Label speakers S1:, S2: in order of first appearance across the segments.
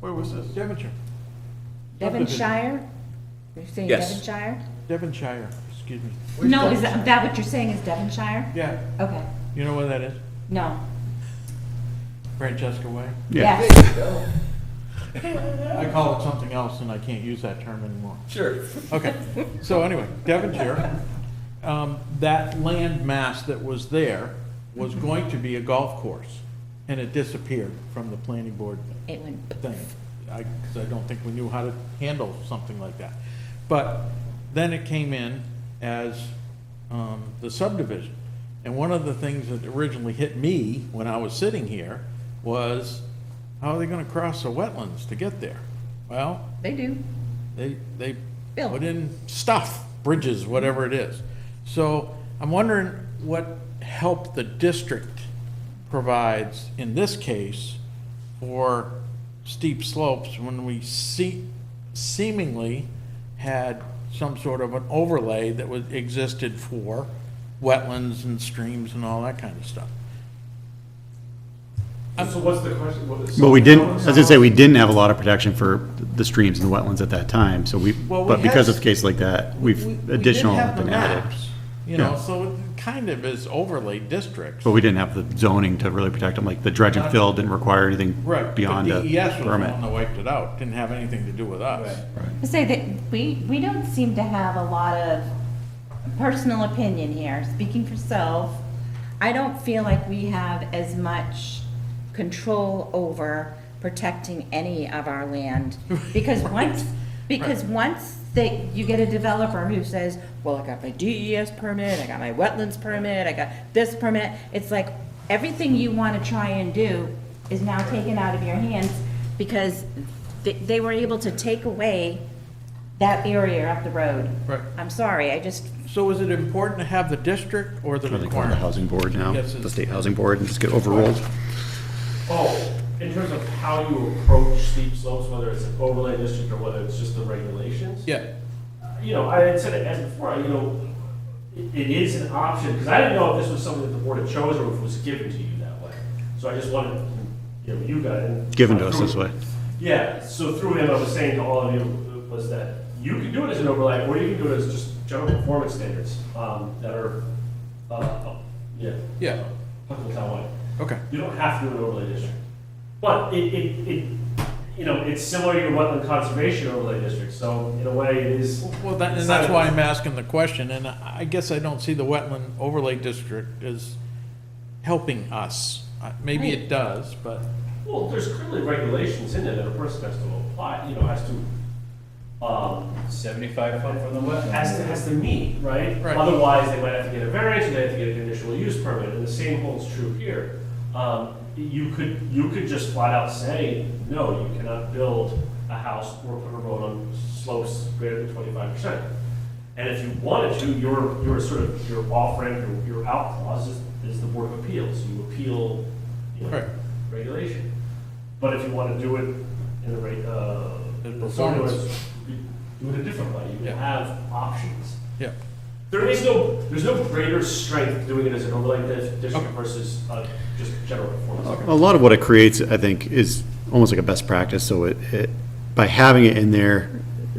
S1: Where was this? Devonshire.
S2: Devonshire? You're saying
S3: Yes.
S2: Devonshire?
S1: Devonshire, excuse me.
S2: No, is that that what you're saying is Devonshire?
S1: Yeah,
S2: Okay,
S1: you know where that is?
S2: no.
S1: Francesca Way.
S4: Yeah.
S2: Yes.
S1: I call it something else and I can't use that term anymore.
S3: Sure.
S1: Okay, so anyway, Devonshire, um, that land mass that was there was going to be a golf course, and it disappeared from the planning board
S2: It went,
S1: thing. I, 'cause I don't think we knew how to handle something like that. But then it came in as, um, the subdivision. And one of the things that originally hit me when I was sitting here was, how are they gonna cross the wetlands to get there? Well,
S2: they do.
S1: they, they
S2: Bill.
S1: put in stuff, bridges, whatever it is. So I'm wondering what help the district provides in this case for steep slopes when we see, seemingly had some sort of an overlay that was, existed for wetlands and streams and all that kind of stuff.
S5: So what's the question? What is-
S4: But we didn't, as I was gonna say, we didn't have a lot of protection for the streams and the wetlands at that time, so we,
S1: Well, we
S4: but because
S1: had-
S4: of cases like that,
S1: We- we
S4: we've
S1: did
S4: additional
S1: have
S4: have
S1: the
S4: been added.
S1: maps, You know,
S4: Yeah.
S1: so it kind of is overlay districts.
S4: But we didn't have the zoning to really protect them, like the dredge and fill didn't require anything
S1: Right. but
S4: beyond a
S1: DES was the
S4: permit.
S1: one that wiped it out, didn't have anything to do with us.
S2: I say that we, we don't seem to have a lot of personal opinion here, speaking for self. I don't feel like we have as much control over protecting any of our land. Because once, because once they, you get a developer who says, well, I got my DES permit, I got my wetlands permit, I got this permit, it's like, everything you wanna try and do is now taken out of your hands because they, they were able to take away that area up the road.
S1: Right.
S2: I'm sorry, I just,
S1: So is it important to have the district or the
S4: What do they call it, the
S1: requirement?
S4: housing board now,
S1: Yes, it's-
S4: the state housing board, and just get overruled.
S5: Oh, in terms of how you approach steep slopes, whether it's an overlay district or whether it's just the regulations?
S1: Yeah,
S5: You know, I had said it as before, you know, it- it is an option, because I didn't know if this was something that the board had chose or if it was given to you that way. So I just wanted, you know, you guys.
S4: Given to us this way.
S5: Yeah, so through him, I was saying to all of you was that you can do it as an overlay, or you can do it as just general performance standards um, that are, uh, uh, yeah.
S1: Yeah.
S5: Applicable townwide.
S1: okay,
S5: You don't have to do an overlay district. But it, it, it, you know, it's similar to your wetland conservation overlay district, so in a way it is.
S1: well, that, and that's why I'm asking the question, and I I guess I don't see the wetland overlay district as helping us. Uh, Maybe it does, but,
S5: Well, there's clearly regulations in there that a person has to apply, you know, has to, um,
S6: Seventy-five foot from the
S5: has to,
S6: wetland.
S5: has to meet, right?
S1: Right.
S5: Otherwise, they might have to get a variance, or they have to get a conditional use permit, and the same holds true here. Um, you could, you could just flat out say, no, you cannot build a house or put a road on slopes greater than twenty-five percent. And if you wanted to, your, your sort of, your off-ramp, your, your out clause is, is the Board of Appeals, you appeal, you know,
S1: Right.
S5: regulation. But if you wanna do it in the rate, uh,
S1: The
S5: in the zoning
S1: performance.
S5: ordinance, you do it a different way, you
S1: Yeah.
S5: have options.
S1: yeah,
S5: There is no, there's no greater strength doing it as an overlay dis- district versus, uh, just general performance.
S4: A lot of what it creates, I think, is almost like a best practice, so it, it, by having it in there,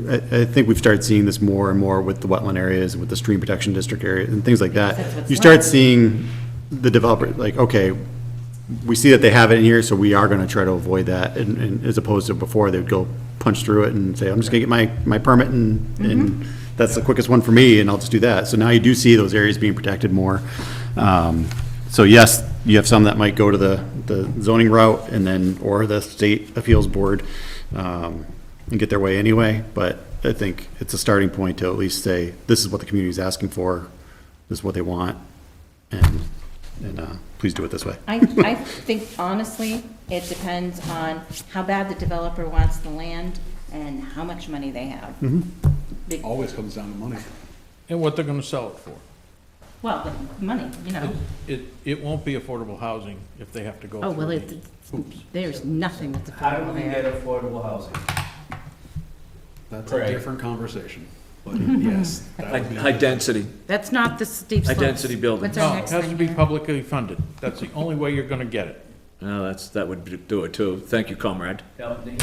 S4: I, I think we've started seeing this more and more with the wetland areas, with the stream protection district areas, and things like
S2: That's
S4: that.
S2: what's
S4: You start
S2: left.
S4: seeing the developer, like, okay, we see that they have it in here, so we are gonna try to avoid that, and, and as opposed to before, they'd go punch through it and say, I'm just gonna get my, my permit and, and that's the quickest one for me, and I'll just do that. So now you do see those areas being protected more. Um, so yes, you have some that might go to the, the zoning route and then, or the state appeals board, um, and get their way anyway, but I think it's a starting point to at least say, this is what the community is asking for, this is what they want, and, and, uh, please do it this way.
S2: I, I think honestly, it depends on how bad the developer wants the land and how much money they have.
S1: Mm-hmm.
S2: Be-
S7: Always comes down to money.
S1: and what they're gonna sell it for.
S2: Well, the money, you know.
S1: It, it won't be affordable housing if they have to go
S2: Oh,
S1: through
S2: well,
S1: the
S2: it, there's nothing that's
S6: How do
S2: affordable
S6: we get
S2: there.
S6: affordable housing?
S7: That's a
S3: Right.
S7: different conversation, but yes. that
S3: High,
S7: would be-
S3: high density.
S2: That's not the steep slopes.
S3: High-density building.
S2: What's
S1: No,
S2: our
S1: it
S2: next
S1: has to
S2: thing
S1: be
S2: here?
S1: publicly funded, that's the only way you're gonna get it.
S3: No, that's, that would do it too. Thank you, comrade.
S6: Now, the